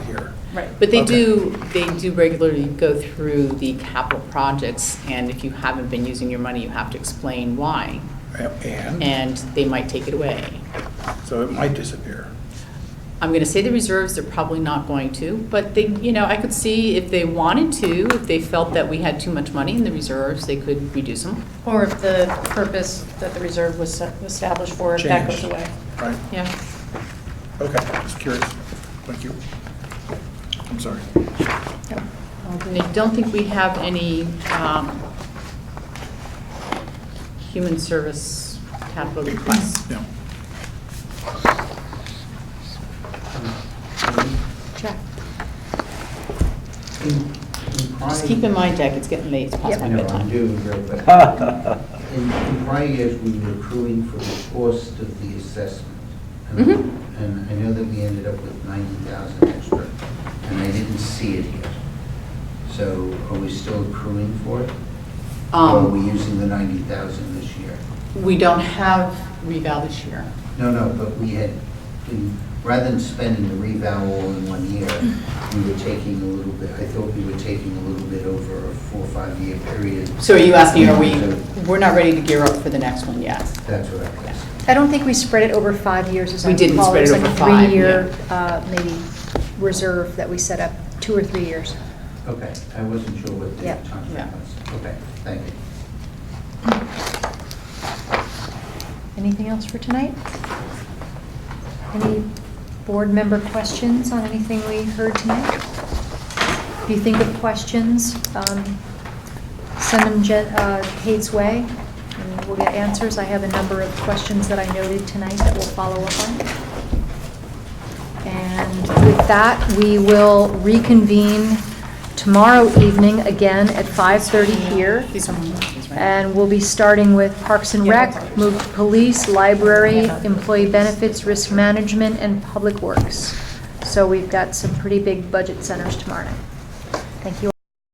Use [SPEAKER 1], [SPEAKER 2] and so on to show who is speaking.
[SPEAKER 1] Right.
[SPEAKER 2] But they
[SPEAKER 3] Okay.
[SPEAKER 2] do, they do regularly go through the capital projects, and if you haven't been using your money, you have to explain why,
[SPEAKER 3] And,
[SPEAKER 2] and they might take it away.
[SPEAKER 3] so it might disappear.
[SPEAKER 2] I'm going to say the reserves, they're probably not going to, but they, you know, I could see if they wanted to, if they felt that we had too much money in the reserves, they could reduce them.
[SPEAKER 1] Or if the purpose that the reserve was set- was established for, if that goes
[SPEAKER 3] Change.
[SPEAKER 1] away.
[SPEAKER 3] Right,
[SPEAKER 2] Yeah.
[SPEAKER 3] okay, just curious. Thank you. I'm sorry.
[SPEAKER 2] I don't think we have any um, human service capital requests.
[SPEAKER 3] No.
[SPEAKER 2] Check.
[SPEAKER 4] Just
[SPEAKER 2] Just keep in mind, Jack, it's getting late, it's past my
[SPEAKER 4] I know,
[SPEAKER 2] bedtime.
[SPEAKER 4] I'm doing very well. In in prior years, we were accruing for the cost of the assessment. And-
[SPEAKER 2] Mhm.
[SPEAKER 4] And I know that we ended up with 90,000 extra, and I didn't see it yet. So are we still accruing for it? Or are we
[SPEAKER 2] Um,
[SPEAKER 4] using the 90,000 this year?
[SPEAKER 2] We don't have reval this year.
[SPEAKER 4] No, no, but we had, in- rather than spending the revow all in one year, we were taking a little bit, I thought we were taking a little bit over a four, or five-year period.
[SPEAKER 2] So are you asking, are we,
[SPEAKER 4] So
[SPEAKER 2] we're not ready to gear up for the next one yet?
[SPEAKER 4] That's what I was.
[SPEAKER 5] I don't think we spread it over five years, as I
[SPEAKER 2] We didn't
[SPEAKER 5] recall.
[SPEAKER 2] spread it over five,
[SPEAKER 5] was like a three-year, uh, maybe, reserve that we set up, two or three years.
[SPEAKER 4] Okay, I wasn't sure what the
[SPEAKER 5] Yeah,
[SPEAKER 4] time
[SPEAKER 2] yeah.
[SPEAKER 4] frame was. Okay, thank you.
[SPEAKER 5] Anything else for tonight? Any board member questions on anything we heard tonight? If you think of questions, um, send them Je- uh, Kate's way, and we'll get answers. I have a number of questions that I noted tonight that we'll follow up on. And with that, we will reconvene tomorrow evening, again at 5:30 here.
[SPEAKER 2] These are my questions, right?
[SPEAKER 5] And we'll be starting with Parks and Rec, move to police, library, employee benefits, risk management, and public works. So we've got some pretty big budget centers tomorrow night. Thank you all.